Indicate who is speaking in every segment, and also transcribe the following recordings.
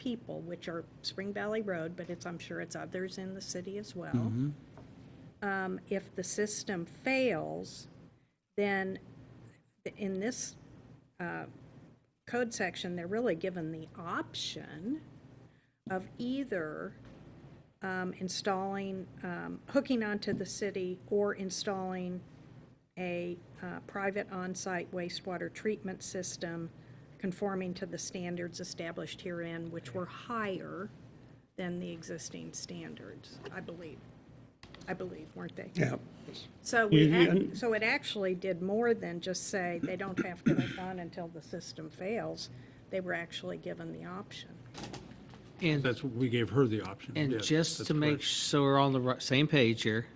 Speaker 1: people, which are Spring Valley Road, but it's, I'm sure it's others in the city as well. Um, if the system fails, then in this uh, code section, they're really given the option of either um, installing, um, hooking onto the city or installing a uh, private on-site wastewater treatment system conforming to the standards established herein, which were higher than the existing standards, I believe. I believe, weren't they?
Speaker 2: Yeah.
Speaker 1: So we,
Speaker 2: You-
Speaker 1: ac-
Speaker 2: you-
Speaker 1: so it actually did more than just say they don't have to hook on until the system fails. They were actually given the option.
Speaker 3: And,
Speaker 2: That's, we gave her the option.
Speaker 3: and
Speaker 2: yes,
Speaker 3: just
Speaker 2: that's
Speaker 3: to make,
Speaker 2: correct.
Speaker 3: s- so we're on the ri- same page here.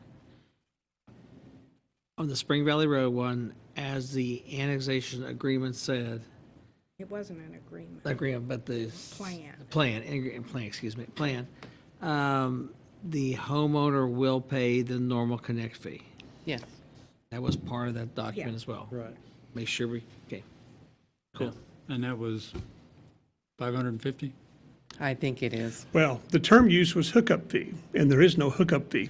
Speaker 3: On the Spring Valley Road one, as the annexation agreement said,
Speaker 1: It wasn't an agreement.
Speaker 3: agreement, but the. s-
Speaker 1: Plan.
Speaker 3: the Plan, ing- plan, excuse me, plan. Um, the homeowner will pay the normal connect fee.
Speaker 4: Yes.
Speaker 3: That was part of that document
Speaker 1: Yeah.
Speaker 3: as well.
Speaker 2: Right.
Speaker 3: Make sure we, okay.
Speaker 2: Cool. And that was 550?
Speaker 4: I think it is.
Speaker 5: Well, the term used was hookup fee, and there is no hookup fee.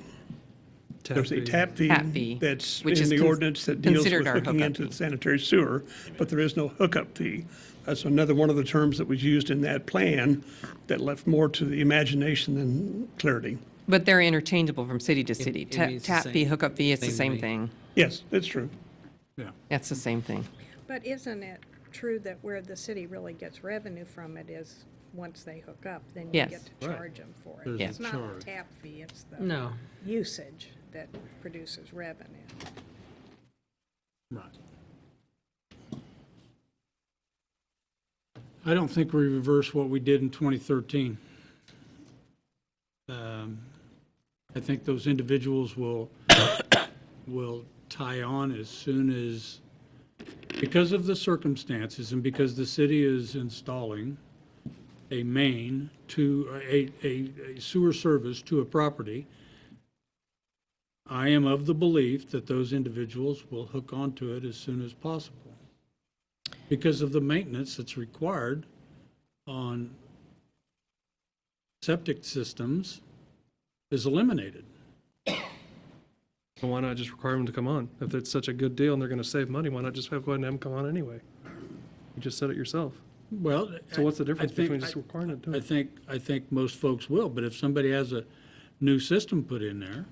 Speaker 5: There's a
Speaker 2: fee.
Speaker 5: tap
Speaker 4: Tap fee,
Speaker 5: fee that's
Speaker 4: which
Speaker 5: in
Speaker 4: is
Speaker 5: the
Speaker 4: cons-
Speaker 5: ordinance that deals
Speaker 4: considered
Speaker 5: with
Speaker 4: our
Speaker 5: hooking
Speaker 4: hookup
Speaker 5: into
Speaker 4: fee.
Speaker 5: the sanitary sewer, but there is no hookup fee. That's another one of the terms that was used in that plan that left more to the imagination than clarity.
Speaker 4: But they're interchangeable from city to city.
Speaker 3: it
Speaker 4: Ta-
Speaker 3: means the
Speaker 4: Tap fee,
Speaker 3: same-
Speaker 4: hookup fee, it's the
Speaker 3: same
Speaker 4: same
Speaker 3: to
Speaker 4: thing.
Speaker 5: Yes, that's true.
Speaker 2: Yeah.
Speaker 4: It's the same thing.
Speaker 1: But isn't it true that where the city really gets revenue from it is once they hook up, then you
Speaker 4: Yes.
Speaker 1: get to charge them for it?
Speaker 2: There's a
Speaker 1: It's not
Speaker 2: charge.
Speaker 1: the tap fee, it's the
Speaker 3: No.
Speaker 1: usage that produces revenue.
Speaker 2: Right. I don't think we reversed what we did in 2013. Um, I think those individuals will, will tie on as soon as, because of the circumstances and because the city is installing a main to, a, a a sewer service to a property, I am of the belief that those individuals will hook onto it as soon as possible because of the maintenance that's required on septic systems is eliminated.
Speaker 6: Well, Why not just require them to come on? If it's such a good deal and they're gonna save money, why not just have, go ahead and have them come on anyway? You just said it yourself.
Speaker 2: Well.
Speaker 6: So what's the
Speaker 2: I- I
Speaker 6: difference
Speaker 2: think-
Speaker 6: between just requiring it to
Speaker 2: I
Speaker 6: do it?
Speaker 2: think, I think most folks will, but if somebody has a new system put in there,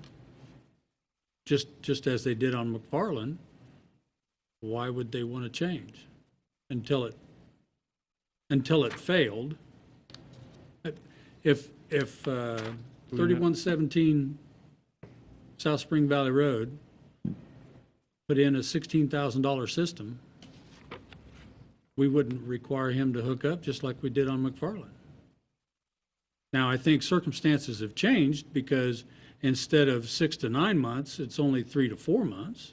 Speaker 2: just, just as they did on McFarland, why would they want to change until it, until it failed? If, if uh, 3117 South Spring Valley Road put in a $16,000 system, we wouldn't require him to hook up, just like we did on McFarland. Now, I think circumstances have changed because instead of six to nine months, it's only three to four months.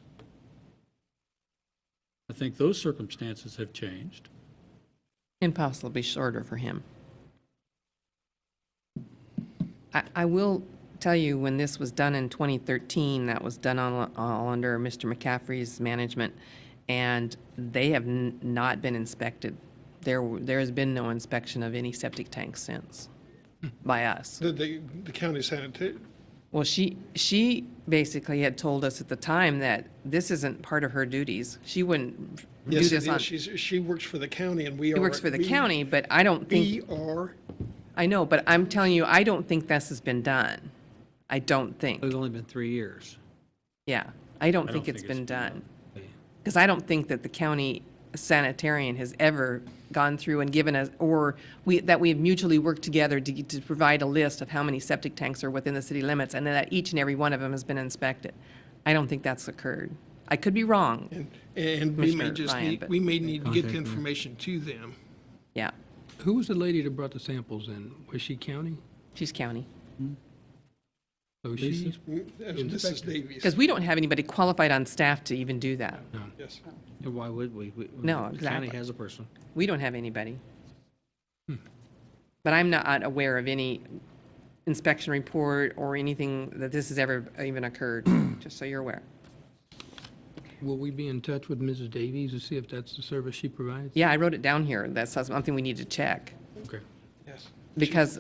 Speaker 2: I think those circumstances have changed.
Speaker 4: And possibly shorter for him. I, I will tell you, when this was done in 2013, that was done all, all under Mr. McCaffrey's management, and they have n- not been inspected. There, w- there has been no inspection of any septic tank since by us.
Speaker 7: The, the, the county sanitary,
Speaker 4: Well, she, she basically had told us at the time that this isn't part of her duties. She wouldn't do
Speaker 7: yes, it
Speaker 4: this on,
Speaker 7: is.
Speaker 4: she
Speaker 7: She's, she works for the county and we are.
Speaker 4: works for the
Speaker 7: we-
Speaker 4: county, but I don't
Speaker 7: We
Speaker 4: think,
Speaker 7: are,
Speaker 4: I know, but I'm telling you, I don't think this has been done. I don't think,
Speaker 3: It's only been three years.
Speaker 4: yeah. I don't think
Speaker 2: think
Speaker 4: it's
Speaker 2: it's been
Speaker 4: been done. Because I don't think that the county sanitarian has ever gone through and given us, or we, that we have mutually worked together to, to provide a list of how many septic tanks are within the city limits, and that each and every one of them has been inspected. I don't think that's occurred. I could be wrong,
Speaker 7: and, and we may
Speaker 4: Commissioner
Speaker 7: just
Speaker 4: Ryan,
Speaker 7: need,
Speaker 4: but-
Speaker 7: we may need to get the information to them.
Speaker 4: yeah.
Speaker 8: Who was the lady that brought the samples in? Was she county?
Speaker 4: She's county.
Speaker 8: So she,
Speaker 7: As Mrs. Mm, uh, Davies,
Speaker 4: Because we don't have anybody qualified on staff to even do that.
Speaker 7: yes.
Speaker 3: And why would we? We-
Speaker 4: No,
Speaker 3: The county
Speaker 4: exactly.
Speaker 3: has a person.
Speaker 4: We don't have anybody. But I'm not aware of any inspection report or anything that this has ever even occurred, just so you're aware.
Speaker 8: will we be in touch with Mrs. Davies to see if that's the service she provides?
Speaker 4: Yeah, I wrote it down here. That's something we need to check.
Speaker 2: Okay.
Speaker 7: Yes.
Speaker 4: because